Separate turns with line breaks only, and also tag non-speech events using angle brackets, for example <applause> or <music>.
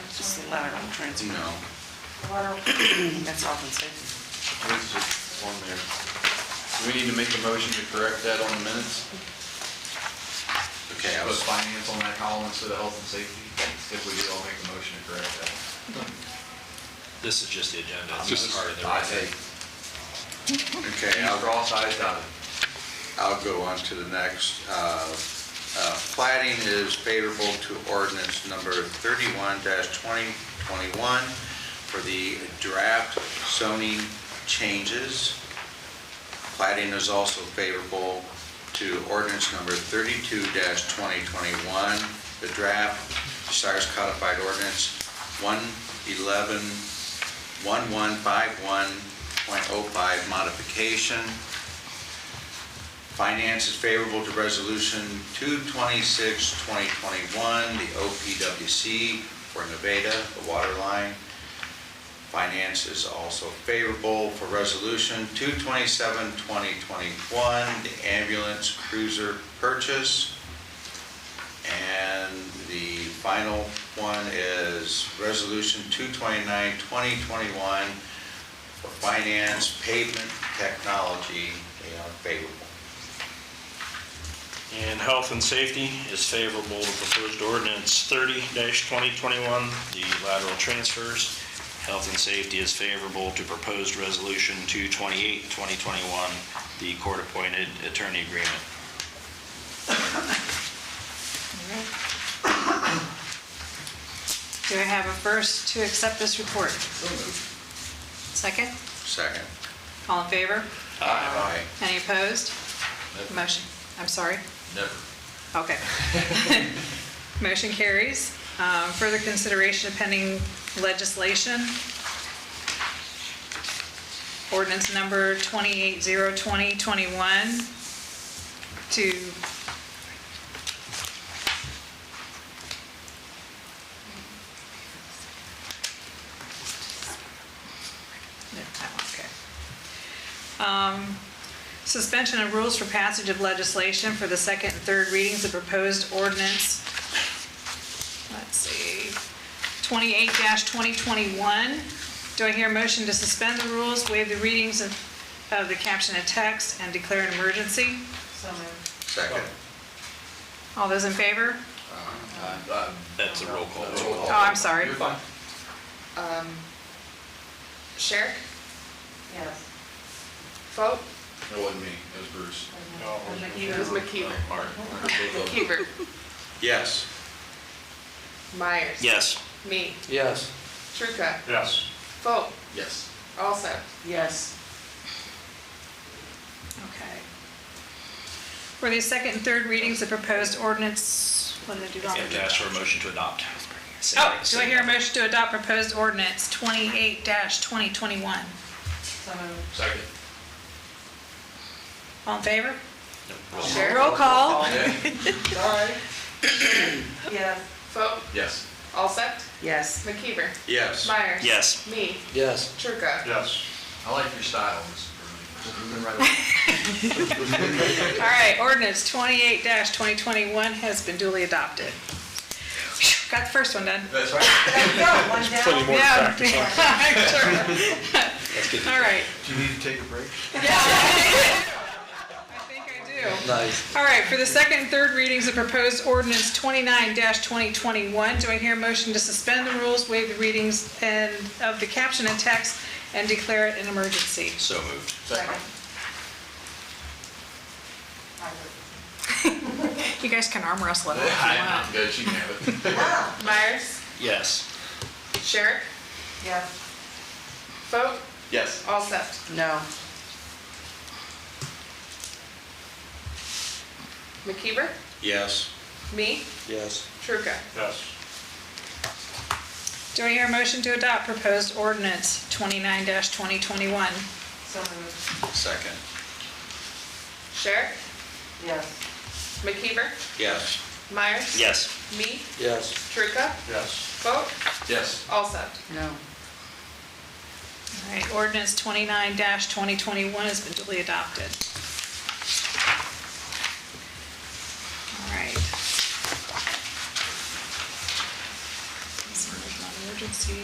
lateral transfer.
No,
<coughs> That's all I'm saying.
there's just one there. Do we need to make a motion to correct that on the minutes? Okay, I
Put
was,
finance on that column instead of health and safety, if we do, I'll make a motion to correct that.
This is just the agenda. It's
Just-
not part of the
I
record.
take,
okay,
I'll
I'll,
draw size dotted.
I'll go on to the next. Uh, uh, Plating is favorable to ordinance number 31-2021 for the draft zoning changes. Plating is also favorable to ordinance number 32-2021, the draft Bucyrus Codified Ordinance 111, 1151.05 modification. Finance is favorable to resolution 226-2021, the OPWC for Nevada, the water line. Finance is also favorable for resolution 227-2021, the ambulance cruiser purchase. And the final one is resolution 229-2021 for finance, pavement, technology, they are favorable.
And health and safety is favorable to proposed ordinance thirty twenty twenty-one, the lateral transfers. Health and safety is favorable to proposed resolution 228-2021, the court-appointed attorney agreement.
Do I have a first to accept this report? Second?
Second.
All in favor?
Aye.
Any opposed?
Nope.
Motion, I'm sorry?
Never.
Okay. <laughs> Motion carries. Um, Further consideration of pending legislation. Ordinance number 2802021 to... No, that one, Okay. Um, Suspension of rules for passage of legislation for the second and third readings of proposed ordinance, let's see, 28-2021. Do I hear a motion to suspend the rules, waive the readings of of the caption and text, and declare an emergency?
Second.
All those in favor?
Uh,
That's a roll call.
Oh, I'm sorry.
You're fine.
Sherrick?
Yes.
Vote,
It wasn't me, it was Bruce.
it was McKeever.
Mark.
McKeever,
Yes.
Myers.
Yes.
Me,
Yes.
Truca,
Yes.
Vote,
Yes.
also.
Yes.
Okay. For the second and third readings of proposed ordinance, what did I do wrong?
And ask for a motion to adopt.
Oh, do I hear a motion to adopt proposed ordinance 28-2021?
Second.
All in favor?
Roll call.
Sherrick,
Roll call.
Sorry. Yes.
Vote,
Yes.
also.
Yes.
McKeever,
Yes.
Myers.
Yes.
Me,
Yes.
Truca.
Yes.
I like your style, Mr. Bruce.
All right, ordinance 28-2021 has been duly adopted. Phew, Got the first one done.
That's right.
One
Plenty
down.
more to
Yeah.
practice on.
<laughs> I'm sure. All right.
Do you need to take a break?
I think I do.
Nice.
All right, for the second and third readings of proposed ordinance 29-2021, do I hear a motion to suspend the rules, waive the readings and of the caption and text, and declare it an emergency?
So moved.
Second. <laughs>
You guys can arm wrestle it all if you want.
I'm good, she can have it.
<laughs>
Myers,
Yes.
Sherrick,
Yes.
Vote,
Yes.
also.
No.
McKeever,
Yes.
me,
Yes.
Truca.
Yes.
Do I hear a motion to adopt proposed ordinance 29-2021?
So moved.
Second.
Sherrick,
Yes.
McKeever,
Yes.
Myers.
Yes.
Me,
Yes.
Truca,
Yes.
Vote,
Yes.
also.
No.
All right, ordinance 29-2021 has been duly adopted. All right. This one is not yours. emergency